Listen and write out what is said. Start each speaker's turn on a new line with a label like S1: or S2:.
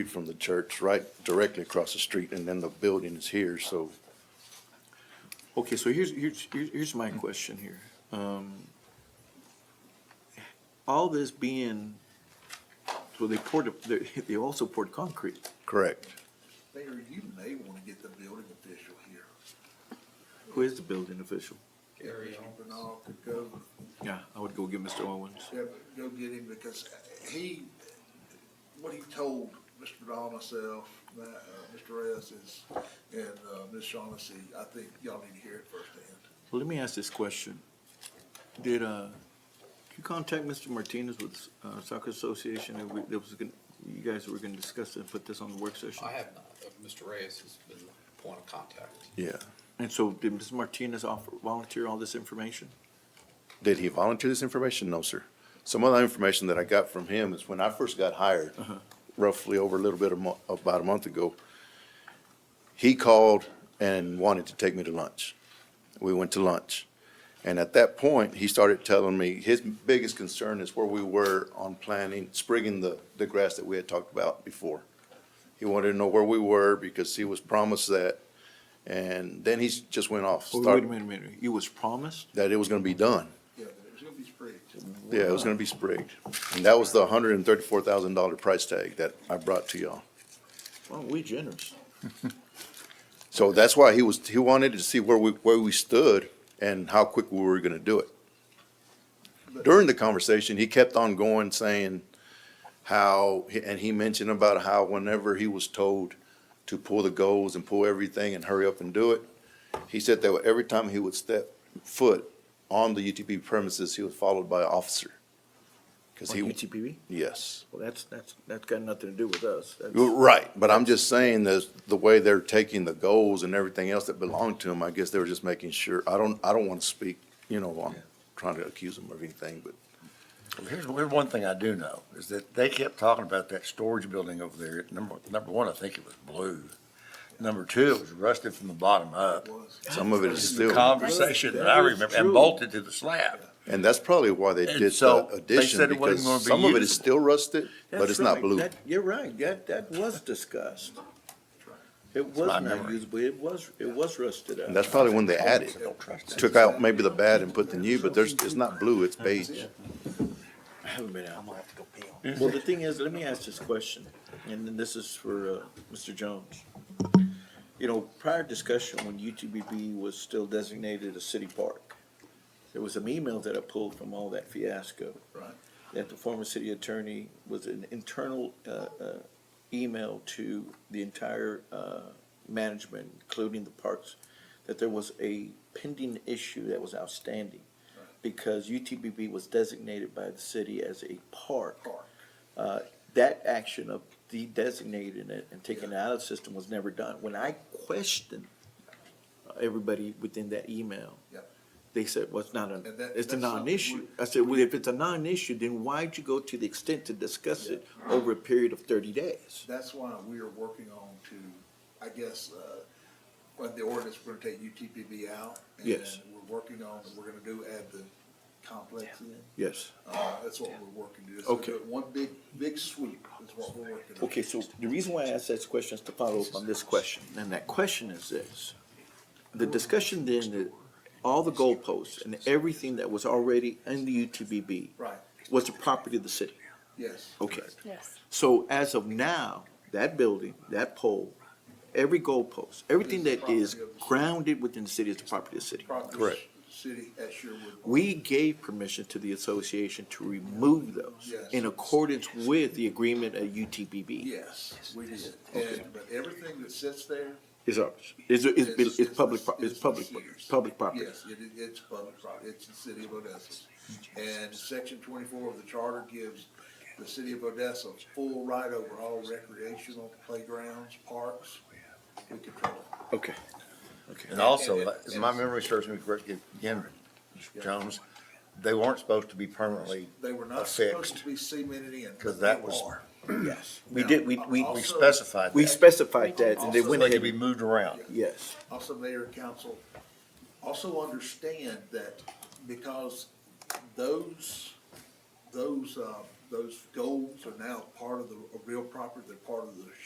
S1: from the church, right directly across the street, and then the building is here, so
S2: Okay, so here's, here's, here's here's my question here. Um, all this being, so they poured, a- they, they also poured concrete.
S1: correct.
S3: Mayor, you may want to get the building official here.
S2: Who is the building official?
S3: Gary Bernal could go,
S2: Yeah, I would go get Mr. Owens.
S3: yeah, go get him because he, what he told Mr. Bernal, myself, uh, Mr. Reyes is, and, uh, Ms. Shaughnessy, I think y'all need to hear it firsthand.
S2: Let me ask this question. Did, uh, did you contact Mr. Martinez with, uh, soccer association, and we, there was gonna, you guys were gonna discuss and put this on the work session?
S4: I have not. Uh, Mr. Reyes has been the point of contact.
S1: Yeah.
S2: And so did Mr. Martinez offer, volunteer all this information?
S1: Did he volunteer this information? No, sir. Some other information that I got from him is when I first got hired,
S2: Uh-huh.
S1: roughly over a little bit of mo- about a month ago, he called and wanted to take me to lunch. We went to lunch. And at that point, he started telling me his biggest concern is where we were on planting, sprigging the, the grass that we had talked about before. He wanted to know where we were because he was promised that. And then he s- just went off,
S2: Or Wait a
S1: started,
S2: minute, wait a minute. It was promised?
S1: that it was gonna be done.
S3: Yeah, but it was gonna be spread.
S1: Yeah, it was gonna be sprigged. And that was the hundred and thirty-four thousand dollar price tag that I brought to y'all.
S2: Well, we generous.
S1: So that's why he was, he wanted to see where we, where we stood and how quick we were gonna do it. During the conversation, he kept on going saying how, and he mentioned about how whenever he was told to pull the goals and pull everything and hurry up and do it, he said that every time he would step foot on the UTP premises, he was followed by an officer. Cause
S2: On
S1: he,
S2: UTPB?
S1: yes.
S2: Well, that's, that's, that's got nothing to do with us. That's-
S1: Well, Right, but I'm just saying that the way they're taking the goals and everything else that belonged to them, I guess they were just making sure, I don't, I don't want to speak, you know, I'm trying to accuse them of anything, but
S5: Well, Here's, here's one thing I do know, is that they kept talking about that storage building over there. Number, number one, I think it was blue. Number two, it was rusted from the bottom up.
S3: It was.
S1: some of it is
S5: The
S1: still,
S5: conversation that
S2: That
S5: I
S2: is
S5: remember, and
S2: true.
S5: bolted to the slab.
S1: and that's probably why they
S5: And
S1: did
S5: so
S1: the
S5: they
S1: addition,
S5: said it wasn't
S1: because
S5: gonna be
S1: some of it is
S5: usable.
S1: still rusted, but
S2: That's
S1: it's not
S2: right.
S1: blue.
S2: That- You're right, that, that was discussed. It was
S5: my
S2: not
S5: memory.
S2: usable, it was, it was rusted
S1: And
S2: out.
S1: that's probably when they added,
S5: Don't trust that.
S1: took out maybe the bad and put the new, but there's, it's not blue, it's beige.
S2: I haven't been out. Well, the thing is, let me ask this question, and then this is for, uh, Mr. Jones. You know, prior discussion when UTBB was still designated a city park, there was some emails that I pulled from all that fiasco.
S3: Right.
S2: that the former city attorney was an internal uh, uh, email to the entire uh, management, including the parks, that there was a pending issue that was outstanding because UTBB was designated by the city as a park.
S3: Park.
S2: Uh, That action of de-designating it and taking it out of the system was never done. When I questioned uh, everybody within that email,
S3: Yep.
S2: they said, well, it's not a,
S3: And that-
S2: it's a
S3: that's something
S2: non-issue.
S3: we-
S2: I said, well, if it's a non-issue, then why'd you go to the extent to discuss it over a period of thirty days?
S3: That's why we are working on to, I guess, uh, when the ordinance, we're gonna take UTPB out.
S2: Yes.
S3: And we're working on, we're gonna do add the complex in.
S2: Yes.
S3: Uh, that's what we're working to do. So
S2: Okay.
S3: do it One big, big sweep is what we're working on.
S2: Okay, so the reason why I asked that question is to follow up on this question, and that question is this. The discussion then, that all the goalposts and everything that was already in the UTBB
S3: Right,
S2: was the property of the city.
S3: yes.
S2: Okay.
S6: Yes.
S2: So as of now, that building, that pole, every goalpost, everything that is grounded within the city is the property of the city.
S3: Property
S1: Correct.
S3: City at Sherwood.
S2: We gave permission to the association to remove those
S3: Yes.
S2: in accordance with the agreement at UTBB.
S3: Yes, we did. And, but everything that sits there.
S2: Is ours, is, is, is is public, pro- is
S3: it's
S2: public,
S3: theirs.
S2: public property.
S3: Yes, it, is- it's public property. It's the city of Odessa. And section twenty-four of the charter gives the city of Odessa full right over all recreational playgrounds, parks. We control it.
S2: Okay.
S5: And also, if my memory serves me correctly, again, Mr. Jones, they weren't supposed to be permanently
S3: They were not supposed
S5: affixed.
S3: to be cemented in.
S5: Because that was-
S3: They are.
S2: Yes. We did, we, we,
S5: We
S3: Also-
S5: specified
S2: we
S5: that.
S2: specified that and they
S5: So
S2: went
S5: They could
S2: ahead,
S5: be moved around.
S2: yes.
S3: also mayor and council, also understand that because those, those, um, those goals are now part of the, a real property, they're part of the